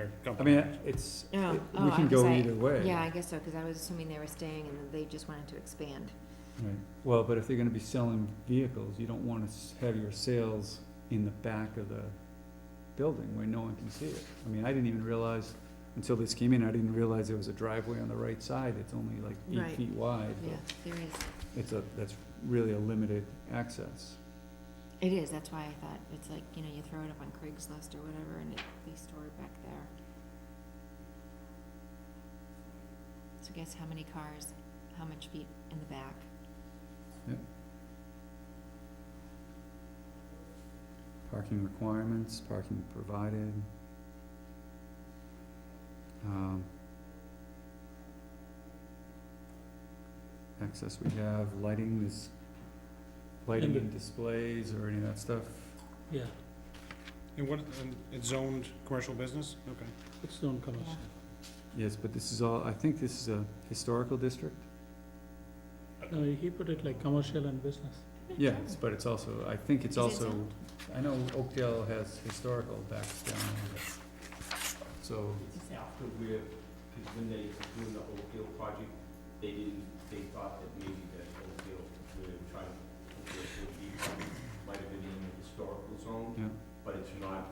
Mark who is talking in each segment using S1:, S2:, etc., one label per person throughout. S1: I
S2: company.
S1: mean, it's, we
S3: Oh, oh,
S1: can
S3: I-
S1: go
S3: 'cause I-
S1: either way.
S3: Yeah, I guess so, because I was assuming they were staying and they just wanted to expand.
S1: Right, well, but if they're gonna be selling vehicles, you don't wanna s- have your sales in the back of the building where no one can see it. I mean, I didn't even realize, until this came in, I didn't realize there was a driveway on the right side, it's only like eight
S3: Right.
S1: feet wide. but
S3: Yeah, there is.
S1: It's a, that's really a limited access.
S3: It is, that's why I thought, it's like, you know, you throw it up on Craigslist or whatever and it- they store it back there. So guess how many cars, how much feet in the back?
S1: Parking requirements, parking provided. Um, Access we have, lighting is, lighting
S4: And the-
S1: and displays or any of that stuff.
S4: Yeah,
S2: And what, and it's zoned commercial business? Okay.
S4: it's non-commercial.
S1: Yes, but this is all, I think this is a historical district.
S4: No, he put it like commercial and business.
S1: Yes, but it's also, I think it's
S3: Is it
S1: also,
S3: zoned?
S1: I know Oakdale has historical backs down there. So,
S3: Is it-
S5: after we're, because when they were doing the Oakdale project, they didn't, they thought that maybe that Oakdale, we're trying, Oakdale would be, might have been in the historical zone,
S1: yeah,
S5: but it's not,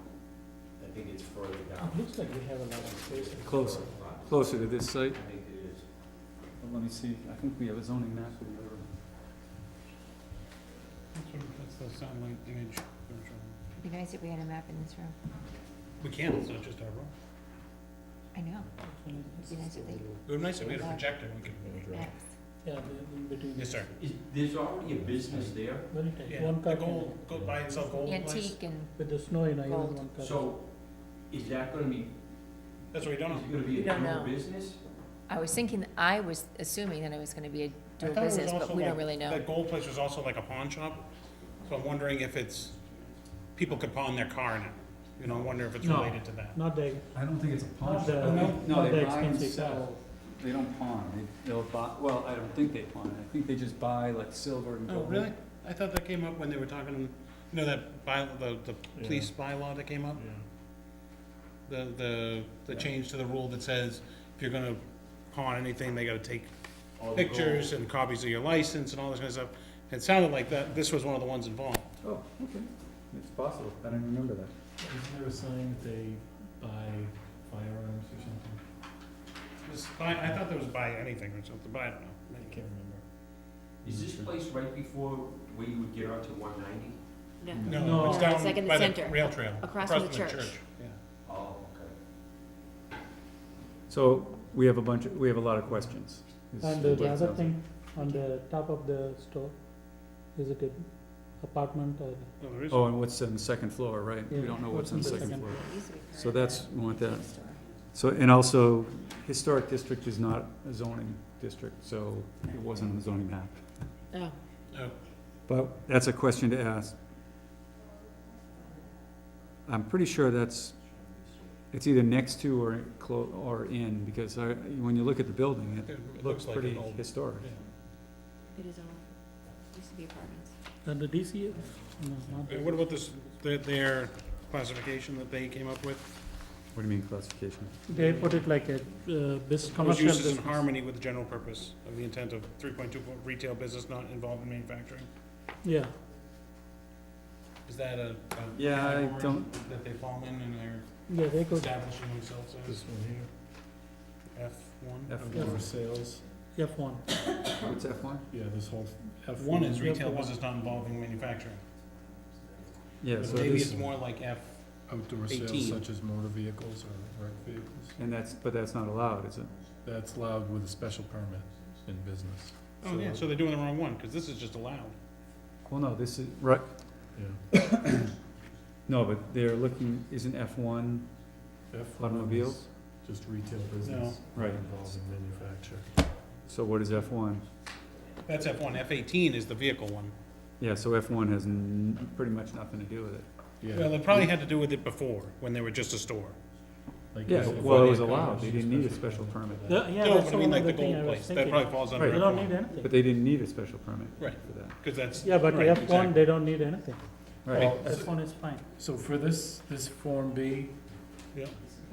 S5: I think it's further
S4: It
S5: down.
S4: looks like we have a lot of space. in-
S1: Closer. closer to this
S5: I
S1: site.
S5: think it is.
S1: Well, Let me see, I think we have a zoning map or whatever.
S2: That's what- That's the satellite image. they were showing.
S3: It'd be nice if we had a map in this room.
S2: We can, it's not just our room.
S3: I know, it'd be nice if they,
S2: It would be nice if we had a projector, we could.
S3: maps.
S4: Yeah, the- in between.
S2: Yes, sir.
S5: Is, there's already a business there,
S4: Very tight,
S2: Yeah,
S4: one
S2: the
S4: car
S2: gold,
S4: can,
S2: go buy and sell gold place.
S3: Antique and,
S4: with the snow, you know,
S3: Gold.
S4: even one car.
S5: so is that gonna be,
S2: That's what we don't
S5: is
S2: know.
S5: it gonna be
S3: We
S5: a
S3: don't
S5: new
S3: know.
S5: business?
S3: I was thinking, I was assuming that it was gonna be a
S2: I
S3: dual
S2: thought it was
S3: business, but
S2: also
S3: we don't
S2: like-
S3: really know.
S2: That gold place was also like a pawn shop, so I'm wondering if it's, people could pawn their car in it. You know, I wonder if it's
S4: No.
S2: related to that.
S4: Not the,
S1: I don't think it's a pawn shop.
S4: not the,
S1: No,
S4: not the
S1: they buy and
S4: expensive
S1: sell.
S4: car.
S1: They don't pawn, they, they'll buy, well, I don't think they pawn, I think they just buy like silver and
S2: Oh,
S1: gold.
S2: really? I thought that came up when they were talking, you know, that by, the, the police bylaw that came up? The, the, the
S1: Yeah.
S2: change to the rule that says if you're gonna pawn anything, they gotta take
S5: All the gold-
S2: pictures and copies of your license and all this kind of stuff. It sounded like that, this was one of the ones involved.
S1: Oh, okay, it's possible, I didn't remember that.
S4: Isn't there a sign that they buy firearms or something?
S2: Was by, I thought there was by anything or something, but I don't know. I can't
S5: Is this place right before where you would get onto one ninety?
S1: No.
S2: No, it's
S3: No,
S2: down
S3: it's like in the
S2: by the
S3: center,
S2: rail trail.
S3: across from the church.
S2: Yeah.
S5: Oh, okay.
S1: So, we have a bunch, of- we have a lot of questions. is
S4: And uh,
S1: what
S4: the
S1: it
S4: other
S1: sounds like.
S4: thing, on the top of the store, is it an apartment or?
S2: No, there is.
S1: Oh, and what's on the second floor, right? We
S4: Yeah.
S1: don't know what's on the second floor.
S3: It used to be
S1: So
S3: part
S1: that's,
S3: of
S1: we want
S3: the
S1: that.
S3: store.
S1: So, and also, historic district is not a zoning district, so it wasn't on the zoning map.
S3: Oh,
S2: Oh,
S1: But that's a question to ask. I'm pretty sure that's, it's either next to or clo- or in, because I, when you look at the building,
S2: it
S1: it looks
S2: looks like an
S1: pretty
S2: old.
S1: historic.
S2: yeah.
S3: it is all, used to be apartments.
S4: And the DCF? No, not
S2: And what about this, their, their classification that they came up with?
S1: What do you mean classification?
S4: They put it like a, uh, bus,
S2: Those
S4: commercial
S2: uses
S4: business.
S2: in harmony with the general purpose of the intent of three point two retail business not involved in manufacturing.
S4: Yeah,
S2: Is that a? a
S1: Yeah, I
S2: category
S1: don't-
S2: That they fall in and they're
S4: yeah, they could,
S2: establishing themselves as? F one?
S1: F
S4: Yeah.
S1: one,
S6: sales,
S4: F one,
S1: what's F one?
S6: yeah, this whole F
S2: One is
S4: F1.
S2: retail business not involving manufacturing.
S1: Yeah,
S2: But
S1: so
S2: Maybe
S1: this,
S2: it's more like F,
S6: outdoor
S2: 18.
S6: sales such as motor vehicles or rec vehicles.
S1: and that's, but that's not allowed, is it?
S6: That's allowed with a special permit in business.
S2: oh yeah, so they're doing the wrong one, cause this is just allowed.
S1: Well, no, this is, right,
S6: Yeah.
S1: no, but they're looking, isn't F one
S6: F1
S1: automobiles?
S6: is Just retail business.
S1: No. Right.
S6: Involving manufacture.
S1: So what is F one?
S2: That's F one, F eighteen is the vehicle one.
S1: Yeah, so F one has n- pretty much nothing to do with it.
S2: Well,
S6: Yeah.
S2: it probably had to do with it before, when they were just a store.
S6: like
S1: Yeah,
S6: this
S1: well,
S6: before
S1: it
S6: they
S1: was
S6: got
S1: allowed.
S6: a
S1: They didn't need a special permit.
S6: for that.
S4: yeah, yeah,
S2: No,
S4: that's
S2: but I mean,
S4: one
S2: like
S4: of
S2: the
S4: the thing I
S2: gold
S4: was
S2: place, that
S4: thinking.
S2: probably falls under
S1: Right.
S4: They don't
S2: F1,
S4: need
S1: But
S4: anything,
S1: they didn't need a special permit
S2: Right.
S1: for that.
S2: because that's.
S4: yeah, but
S2: right,
S4: F one,
S2: exactly.
S4: they don't need anything,
S1: Right,
S6: Well,
S4: F one is fine.
S6: So for this, this Form B,
S2: Yeah.